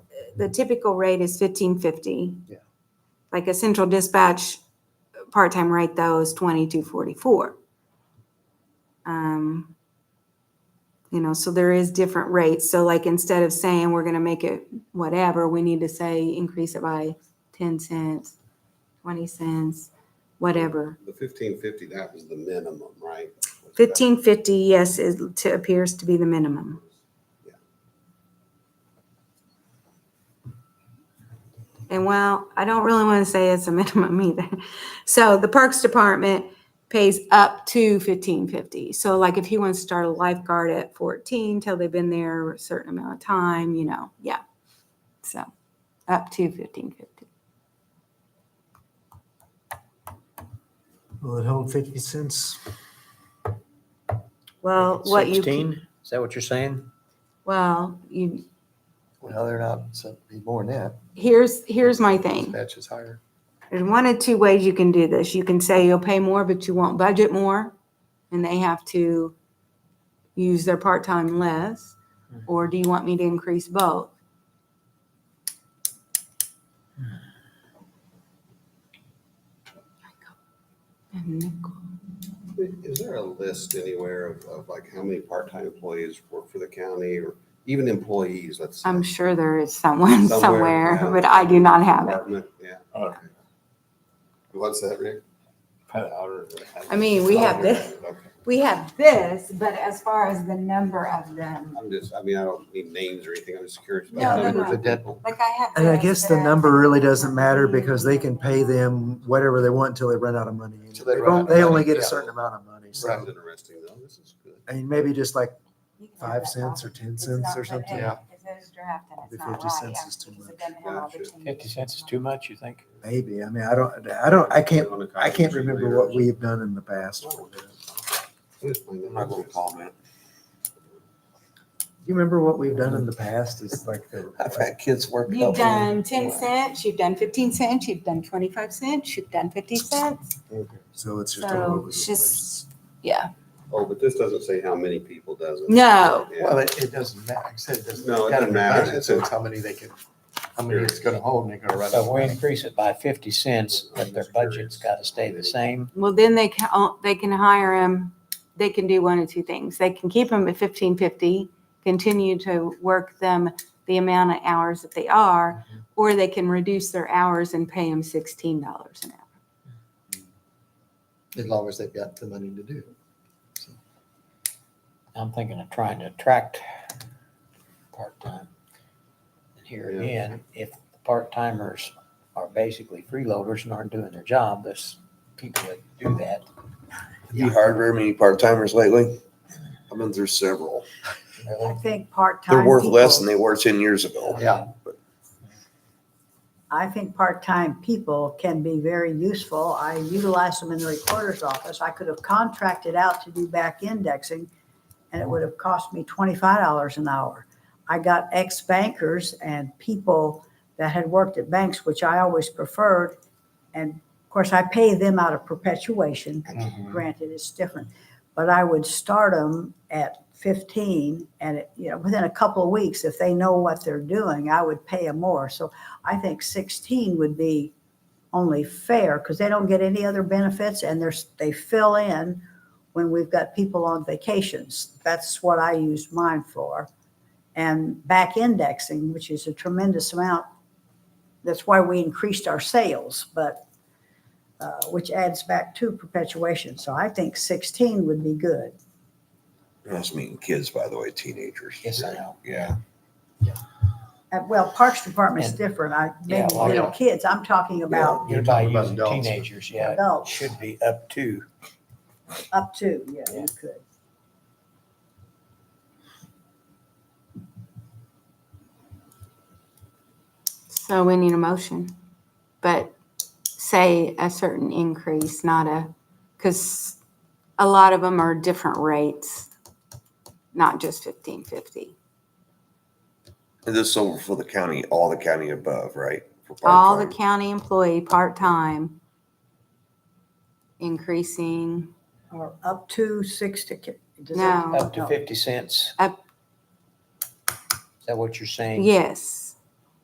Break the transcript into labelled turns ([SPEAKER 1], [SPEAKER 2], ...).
[SPEAKER 1] the typical rate is fifteen fifty.
[SPEAKER 2] Yeah.
[SPEAKER 1] Like a central dispatch part-time rate though is twenty-two forty-four. Um, you know, so there is different rates. So like instead of saying we're gonna make it whatever, we need to say increase it by ten cents, twenty cents, whatever.
[SPEAKER 3] The fifteen fifty, that was the minimum, right?
[SPEAKER 1] Fifteen fifty, yes, is, to- appears to be the minimum. And well, I don't really want to say it's a minimum either. So the Parks Department pays up to fifteen fifty. So like if he wants to start a lifeguard at fourteen till they've been there a certain amount of time, you know, yeah. So up to fifteen fifty.
[SPEAKER 4] Will it hold fifty cents?
[SPEAKER 1] Well, what you, can-
[SPEAKER 5] Sixteen, is that what you're saying?
[SPEAKER 1] well, you,
[SPEAKER 2] Well, they're not, so it'd be more than that,
[SPEAKER 1] here's, here's my thing.
[SPEAKER 2] dispatch is higher.
[SPEAKER 1] There's one of two ways you can do this. You can say you'll pay more, but you won't budget more, and they have to use their part-time less,
[SPEAKER 3] Hmm.
[SPEAKER 1] or do you want me to increase both? And nickel.
[SPEAKER 3] Is there a list anywhere of, of like how many part-time employees work for the county or even employees, let's say?
[SPEAKER 1] I'm sure there is someone
[SPEAKER 3] Somewhere,
[SPEAKER 1] somewhere,
[SPEAKER 3] yeah.
[SPEAKER 1] but I do not have it.
[SPEAKER 3] Department, yeah.
[SPEAKER 6] I don't
[SPEAKER 3] What's that, Rick?
[SPEAKER 1] I mean, we have
[SPEAKER 3] Okay,
[SPEAKER 1] this.
[SPEAKER 3] okay.
[SPEAKER 1] We have this, but as far as the number of them,
[SPEAKER 3] I'm just, I mean, I don't need names or anything. I'm just curious.
[SPEAKER 1] No,
[SPEAKER 3] about
[SPEAKER 1] no,
[SPEAKER 3] numbers
[SPEAKER 1] no.
[SPEAKER 3] of people.
[SPEAKER 1] like I have.
[SPEAKER 4] And I
[SPEAKER 1] this,
[SPEAKER 4] guess
[SPEAKER 1] but
[SPEAKER 4] the number really doesn't
[SPEAKER 1] don't
[SPEAKER 4] matter
[SPEAKER 1] need
[SPEAKER 4] because they can pay them whatever they want until they run out of money. And
[SPEAKER 2] Till they
[SPEAKER 4] They
[SPEAKER 2] run out
[SPEAKER 4] don't,
[SPEAKER 2] of
[SPEAKER 4] they
[SPEAKER 2] money,
[SPEAKER 4] only get a
[SPEAKER 2] yeah.
[SPEAKER 4] certain amount of money.
[SPEAKER 3] This
[SPEAKER 4] So,
[SPEAKER 3] is interesting though. This is good.
[SPEAKER 4] I mean, maybe just like
[SPEAKER 1] You can have
[SPEAKER 4] five
[SPEAKER 1] that
[SPEAKER 4] cents
[SPEAKER 1] problem.
[SPEAKER 4] or ten
[SPEAKER 1] It's
[SPEAKER 4] cents
[SPEAKER 1] not
[SPEAKER 4] or
[SPEAKER 1] for
[SPEAKER 4] something.
[SPEAKER 1] egg, 'cause those draft and it's
[SPEAKER 4] The
[SPEAKER 1] not
[SPEAKER 4] 50
[SPEAKER 1] right,
[SPEAKER 4] cents
[SPEAKER 1] yeah,
[SPEAKER 4] is too
[SPEAKER 1] because it
[SPEAKER 4] much.
[SPEAKER 1] doesn't have all the
[SPEAKER 3] Gotcha.
[SPEAKER 1] changes.
[SPEAKER 5] Fifty cents is too much, you think?
[SPEAKER 4] Maybe. I mean, I don't, I don't, I can't,
[SPEAKER 3] On a
[SPEAKER 4] I can't
[SPEAKER 3] conversation
[SPEAKER 4] remember
[SPEAKER 3] later.
[SPEAKER 4] what we've done in the past.
[SPEAKER 3] Oh,
[SPEAKER 4] Do
[SPEAKER 3] okay. I'm just playing that.
[SPEAKER 5] comment.
[SPEAKER 4] you remember what we've done in the past? It's like, the-
[SPEAKER 2] I've had kids work.
[SPEAKER 1] You've done ten cents, you've done fifteen cents, you've done twenty-five cents, you've done fifty cents.
[SPEAKER 4] so it's just. all
[SPEAKER 1] So
[SPEAKER 4] over the
[SPEAKER 1] it's
[SPEAKER 4] place.
[SPEAKER 1] just, yeah,
[SPEAKER 3] Oh, but this doesn't say how many people, does it?
[SPEAKER 1] No.
[SPEAKER 3] Yeah.
[SPEAKER 2] Well, it, it doesn't matter, like I said, it doesn't.
[SPEAKER 3] No, it
[SPEAKER 2] gotta
[SPEAKER 3] doesn't
[SPEAKER 2] be
[SPEAKER 3] matter.
[SPEAKER 2] budgeted, So it's how many they can, how many it's gonna hold and they're gonna run. out
[SPEAKER 5] So
[SPEAKER 2] of
[SPEAKER 5] if we
[SPEAKER 2] money.
[SPEAKER 5] increase it by fifty cents, but their budget's gotta stay the same.
[SPEAKER 1] well, then they can, o- they can hire him, they can do one of two things. They can keep him at fifteen fifty, continue to work them the amount of hours that they are, or they can reduce their hours and pay him sixteen dollars an hour.
[SPEAKER 2] As long as they've got the money to do. it.
[SPEAKER 5] I'm thinking of trying to attract part-time. And here
[SPEAKER 3] Yeah.
[SPEAKER 5] again, if the part-timers are basically freeloaders and aren't doing their job, there's people that do that.
[SPEAKER 7] You hired very many part-timers lately? I've been through several.
[SPEAKER 5] Really,
[SPEAKER 8] think part-time.
[SPEAKER 7] They're worth less than
[SPEAKER 8] people-
[SPEAKER 7] they were ten years ago.
[SPEAKER 2] Yeah,
[SPEAKER 8] I think part-time people can be very useful. I utilized them in the recorder's office. I could have contracted out to do back indexing and it would have cost me twenty-five dollars an hour. I got ex-bankers and people that had worked at banks, which I always preferred. And of course, I pay them out of perpetuation.
[SPEAKER 2] Mm-hmm.
[SPEAKER 8] Granted, it's different. But I would start them at fifteen and, it- you know, within a couple of weeks, if they know what they're doing, I would pay them more. So I think 16 would be only fair because they don't get any other benefits and there's, they fill in when we've got people on vacations. That's what I used mine for. And back indexing, which is a tremendous amount. That's why we increased our sales, but, uh, which adds back to perpetuation. So I think 16 would be good.
[SPEAKER 7] I was meeting kids, by the way, teenagers.
[SPEAKER 5] Yes, I know.
[SPEAKER 7] Yeah.
[SPEAKER 8] Uh, Well, Parks Department's
[SPEAKER 5] And-
[SPEAKER 8] different. I,
[SPEAKER 5] Yeah,
[SPEAKER 8] maybe
[SPEAKER 5] well,
[SPEAKER 8] little
[SPEAKER 5] yeah.
[SPEAKER 8] kids. I'm talking about
[SPEAKER 2] You're
[SPEAKER 5] By
[SPEAKER 2] talking about
[SPEAKER 5] using
[SPEAKER 2] adults.
[SPEAKER 5] teenagers, yeah, it
[SPEAKER 8] adults
[SPEAKER 5] should be up to.
[SPEAKER 8] up to, yeah, you
[SPEAKER 5] Yeah.
[SPEAKER 8] could.
[SPEAKER 1] So we need a motion, but say a certain increase, not a, because a lot of them are different rates, not just fifteen fifty.
[SPEAKER 7] And this is over for the county, all the county above, right? For
[SPEAKER 1] All the
[SPEAKER 7] part-time.
[SPEAKER 1] county employee, part-time, increasing
[SPEAKER 8] Or up to sixty. does that-
[SPEAKER 1] No.
[SPEAKER 5] Up to fifty cents?
[SPEAKER 1] Up-
[SPEAKER 5] Is that what you're saying?
[SPEAKER 1] Yes.